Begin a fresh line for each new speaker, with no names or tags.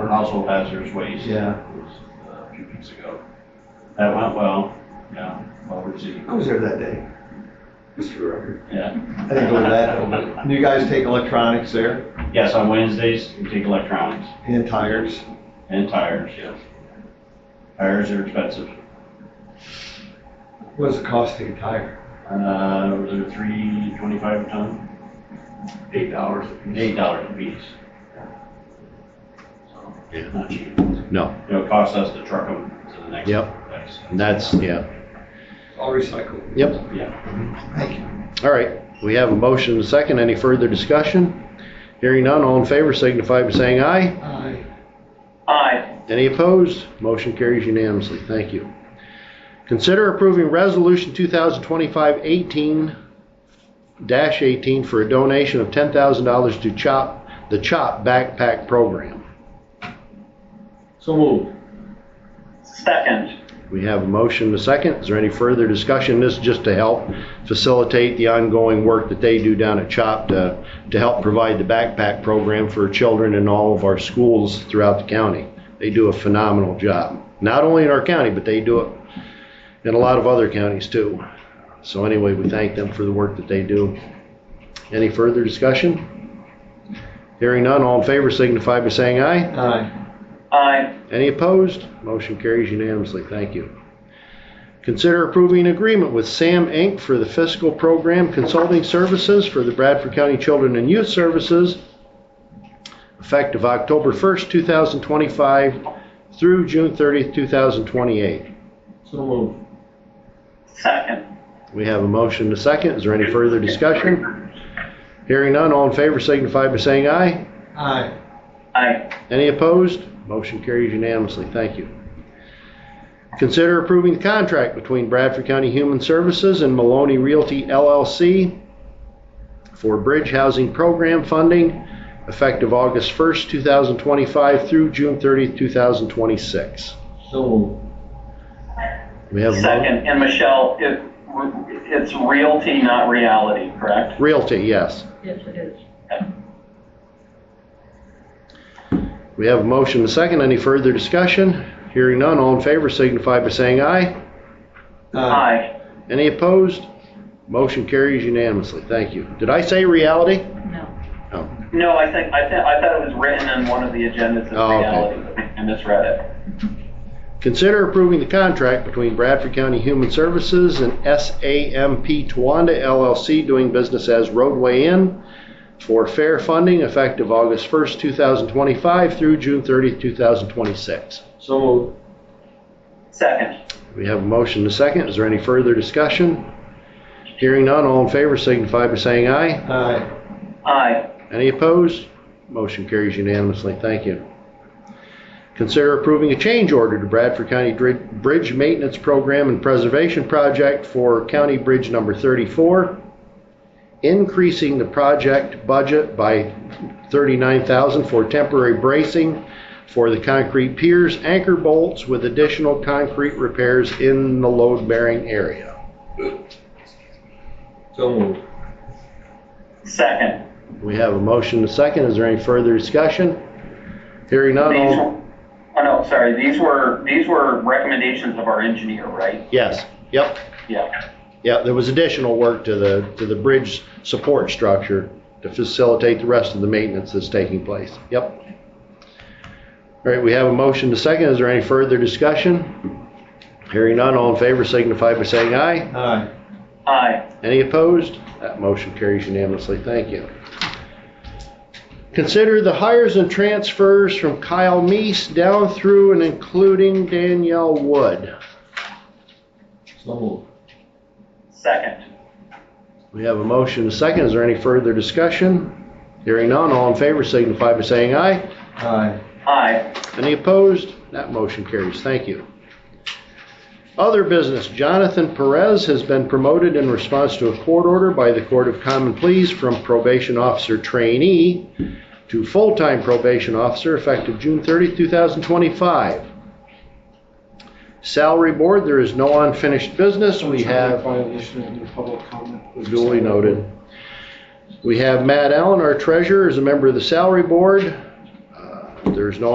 household hazardous waste.
Yeah,
It was uh, A few weeks ago. That went well, yeah, well received,
I was there that day, just for the record.
yeah.
I didn't go to that. Do you guys take electronics there
Yes, on Wednesdays, we take electronics
and tires?
and tires, yes. Tires are expensive.
What's the cost to get a tire?
Uh, was it three twenty-five a ton?
Eight dollars a piece.
Eight dollars a piece. So,
Yeah.
Not cheap.
No,
It'll cost us to truck them to the next
Yep.
place.
that's, yeah,
I'll recycle.
yep,
Yeah.
Thank you.
all right. We have a motion and a second. Any further discussion? Hearing none, all in favor signify by saying aye.
Aye.
Aye.
Any opposed? Motion carries unanimously. Thank you. Consider approving Resolution 2025-18-18 for a donation of $10,000 to CHOP, the CHOP Backpack Program.
So moved.
Second.
We have a motion and a second. Is there any further discussion? This is just to help facilitate the ongoing work that they do down at CHOP to, to help provide the backpack program for children in all of our schools throughout the county. They do a phenomenal job, not only in our county, but they do it in a lot of other counties too. So anyway, we thank them for the work that they do. Any further discussion? Hearing none, all in favor signify by saying aye.
Aye.
Aye.
Any opposed? Motion carries unanimously. Thank you. Consider approving an agreement with SAM Inc. for the fiscal program consulting services for the Bradford County Children and Youth Services effective October 1st, 2025 through June 30th, 2028.
So moved.
Second.
We have a motion to second. Is there any further discussion? Hearing none, all in favor signify by saying aye.
Aye.
Aye.
Any opposed? Motion carries unanimously. Thank you. Consider approving the contract between Bradford County Human Services and Maloney Realty LLC for Bridge Housing Program funding effective August 1st, 2025 through June 30th, 2026.
So moved.
We have Mal-
Second. And Michelle, it, it's realty, not reality, correct?
Realty, yes.
Yes, it is.
We have a motion and a second. Any further discussion? Hearing none, all in favor signify by saying aye. Uh.
Aye.
Any opposed? Motion carries unanimously. Thank you. Did I say reality?
No.
No, I think, I think, I thought it was written in one of the agendas as
Oh, okay.
reality. I misread it.
Consider approving the contract between Bradford County Human Services and SAMP Towanda LLC doing business as Roadway Inn for fair funding effective August 1st, 2025 through June 30th, 2026.
So moved.
Second.
We have a motion to second. Is there any further discussion? Hearing none, all in favor signify by saying aye.
Aye.
Aye.
Any opposed? Motion carries unanimously. Thank you. Consider approving a change order to Bradford County Dri- Bridge Maintenance Program and Preservation Project for County Bridge Number 34, increasing the project budget by $39,000 for temporary bracing for the concrete piers, anchor bolts with additional concrete repairs in the load-bearing area.
So moved.
Second.
We have a motion and a second. Is there any further discussion? Hearing none,
These
all...
were, oh no, sorry, these were, these were recommendations of our engineer, right?
Yes, yep,
Yeah.
yep, there was additional work to the, to the bridge support structure to facilitate the rest of the maintenance that's taking place, yep. All right, we have a motion to second, is there any further discussion? Hearing none, all in favor signify by saying aye.
Aye.
Aye.
Any opposed? That motion carries unanimously. Thank you. Consider the hires and transfers from Kyle Meese down through and including Danielle Wood.
So moved.
Second.
We have a motion, and a second. Is there any further discussion? Hearing none, all in favor signify by saying aye.
Aye.
Aye.
Any opposed? That motion carries. Thank you. Other business, Jonathan Perez has been promoted in response to a court order by the Court of Common Pleas from probation officer trainee to full-time probation officer effective June 30, 2025. Salary Board, there is no unfinished business. We have
Violation of your public comment.
Duly noted. We have Matt Allen, our treasurer, is a member of the salary board. Uh, There's no